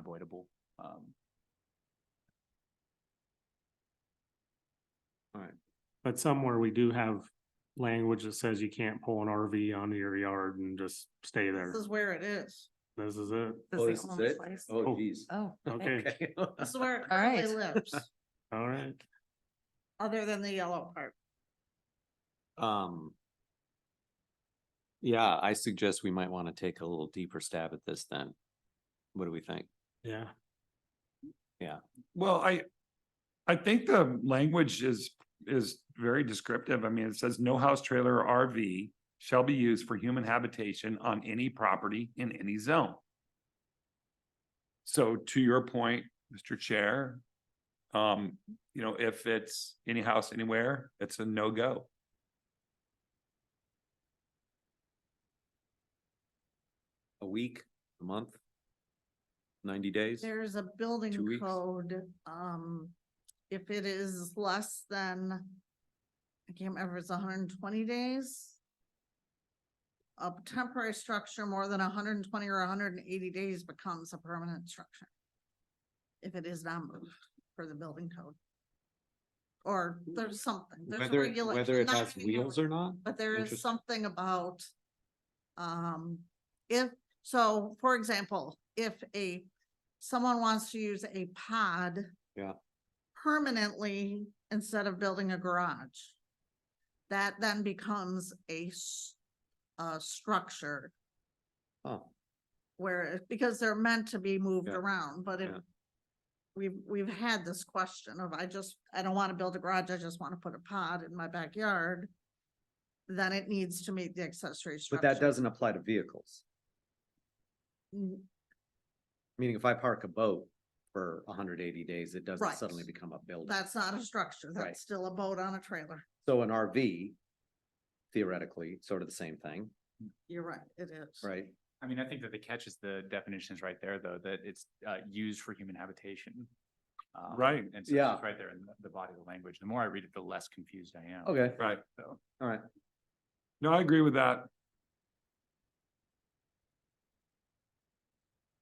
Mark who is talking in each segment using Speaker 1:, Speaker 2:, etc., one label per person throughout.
Speaker 1: available. Um,
Speaker 2: But somewhere we do have language that says you can't pull an RV onto your yard and just stay there.
Speaker 3: This is where it is.
Speaker 2: This is it.
Speaker 3: This
Speaker 4: Oh, this
Speaker 3: is the
Speaker 4: is
Speaker 3: only
Speaker 4: it?
Speaker 3: place.
Speaker 2: Oh.
Speaker 4: Oh, geez.
Speaker 5: Oh.
Speaker 2: Okay,
Speaker 4: Okay.
Speaker 3: This is where it
Speaker 5: All right.
Speaker 3: currently lives,
Speaker 2: all right.
Speaker 3: other than the yellow part.
Speaker 1: Um. Yeah, I suggest we might want to take a little deeper stab at this then. What do we think?
Speaker 2: Yeah,
Speaker 6: Well, I, I think the language is, is very descriptive. I mean, it says no house, trailer, or RV shall be used for human habitation on any property in any zone. So to your point, Mr. Chair, um, you know, if it's any house anywhere, it's a no-go.
Speaker 1: A week, a month? Ninety days?
Speaker 3: There's a
Speaker 1: Two
Speaker 3: building
Speaker 1: weeks.
Speaker 3: code, um, if it is less than, I can't remember, it's hundred and twenty days. A temporary structure more than hundred and twenty or hundred and eighty days becomes a permanent structure. If it is not moved for the building code. Or there's something, there's a
Speaker 1: Whether,
Speaker 3: regulation.
Speaker 1: whether it
Speaker 3: not
Speaker 1: has
Speaker 3: regulation.
Speaker 1: wheels or not?
Speaker 3: But there is
Speaker 1: Interesting.
Speaker 3: something about, um, if, so, for example, if a, someone wants to use a pod.
Speaker 1: Yeah.
Speaker 3: Permanently instead of building a garage. That then becomes a, s- a structure
Speaker 1: Oh,
Speaker 3: where, it- because they're meant to be moved
Speaker 1: Yeah.
Speaker 3: around, but if.
Speaker 1: Yeah.
Speaker 3: We've, we've had this question of, I just, I don't want to build a garage, I just want to put a pod in my backyard. Then it needs to meet the accessory
Speaker 4: But
Speaker 3: structure.
Speaker 4: that doesn't apply to vehicles.
Speaker 3: N-
Speaker 4: Meaning if I park a boat for hundred eighty days, it
Speaker 3: Right.
Speaker 4: doesn't suddenly become a building.
Speaker 3: That's not a structure,
Speaker 4: Right.
Speaker 3: that's still a boat on a trailer.
Speaker 4: So an RV theoretically, sort of the same thing,
Speaker 3: You're right, it is.
Speaker 4: right?
Speaker 7: I mean, I think that the catch is the definitions right there, though, that it's uh used for human habitation. Um,
Speaker 6: Right.
Speaker 7: And so
Speaker 4: Yeah.
Speaker 7: it's right there in the- the body of the language. The more I read it, the less confused I am.
Speaker 4: Okay,
Speaker 6: Right.
Speaker 7: So.
Speaker 4: all right.
Speaker 6: No, I agree with that.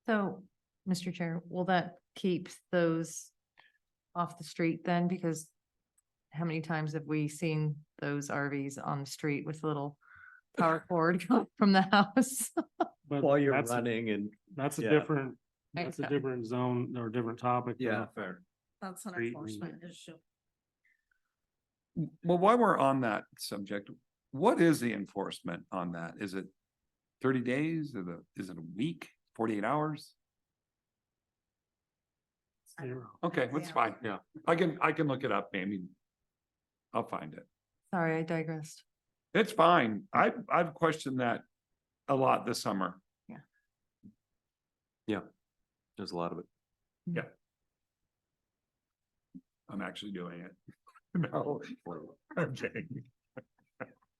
Speaker 5: So, Mr. Chair, will that keep those off the street then? Because how many times have we seen those RVs on the street with little power cord going from the house?
Speaker 2: but
Speaker 4: While you're
Speaker 2: that's,
Speaker 4: running and,
Speaker 2: that's a
Speaker 4: yeah.
Speaker 2: different, that's a
Speaker 5: Okay.
Speaker 2: different zone or different topic. than
Speaker 4: yeah,
Speaker 2: a-
Speaker 4: fair.
Speaker 3: That's an
Speaker 2: Street and-
Speaker 3: enforcement issue.
Speaker 6: Well, while we're on that subject, what is the enforcement on that? Is it thirty days or the, is it a week, forty-eight hours?
Speaker 2: Zero.
Speaker 6: Okay, that's
Speaker 3: Yeah.
Speaker 6: fine. Yeah, I can, I can look it up, maybe. I'll find it.
Speaker 5: Sorry, I digressed.
Speaker 6: It's fine. I, I've questioned that a lot this summer.
Speaker 1: there's a lot of it.
Speaker 6: I'm actually doing it. No, I'm kidding.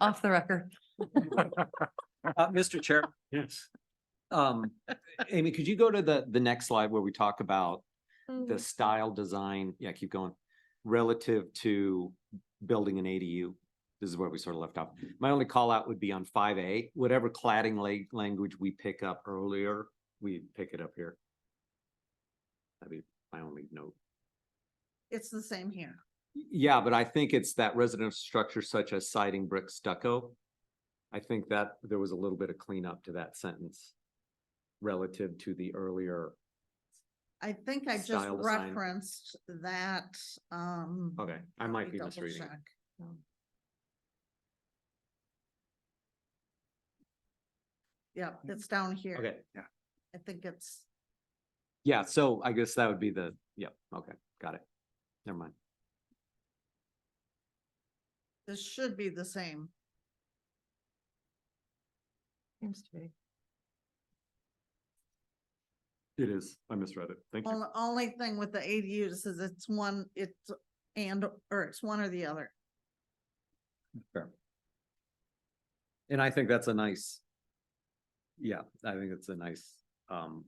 Speaker 5: Off the record.
Speaker 1: Uh, Mr. Chair,
Speaker 2: Yes.
Speaker 1: um, Amy, could you go to the, the next slide where we talk about the
Speaker 5: Mm.
Speaker 1: style design? Yeah, keep going. Relative to building an ADU. This is where we sort of left off. My only call out would be on five A, whatever cladding la- language we pick up earlier, we pick it up here. That'd be my only note.
Speaker 3: It's the same here.
Speaker 1: Yeah, but I think it's that residential structure such as siding, brick, stucco. I think that there was a little bit of cleanup to that sentence relative to the earlier,
Speaker 3: I think I just
Speaker 1: Style design.
Speaker 3: referenced that, um.
Speaker 1: okay, I
Speaker 3: let
Speaker 1: might
Speaker 3: me
Speaker 1: be
Speaker 3: double
Speaker 1: misreading. it.
Speaker 3: check. Yep, it's down here.
Speaker 1: Mm-hmm. Okay,
Speaker 3: I think it's,
Speaker 1: yeah, so I guess that would be the, yep, okay, got it. Never mind.
Speaker 3: this should be the same.
Speaker 5: Seems to be.
Speaker 1: It is, I misread it, thank
Speaker 3: Only, only thing with the ADUs is it's one, it's and, or it's one or the other.
Speaker 1: And I think that's a nice, yeah, I think it's a nice, um,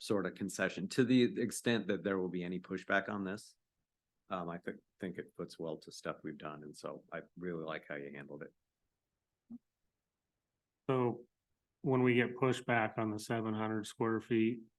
Speaker 1: sort of concession to the extent that there will be any pushback on this. Um, I think, think it puts well to stuff we've done. And so I really like how you handled it.
Speaker 2: So when we get pushback on the seven hundred square feet,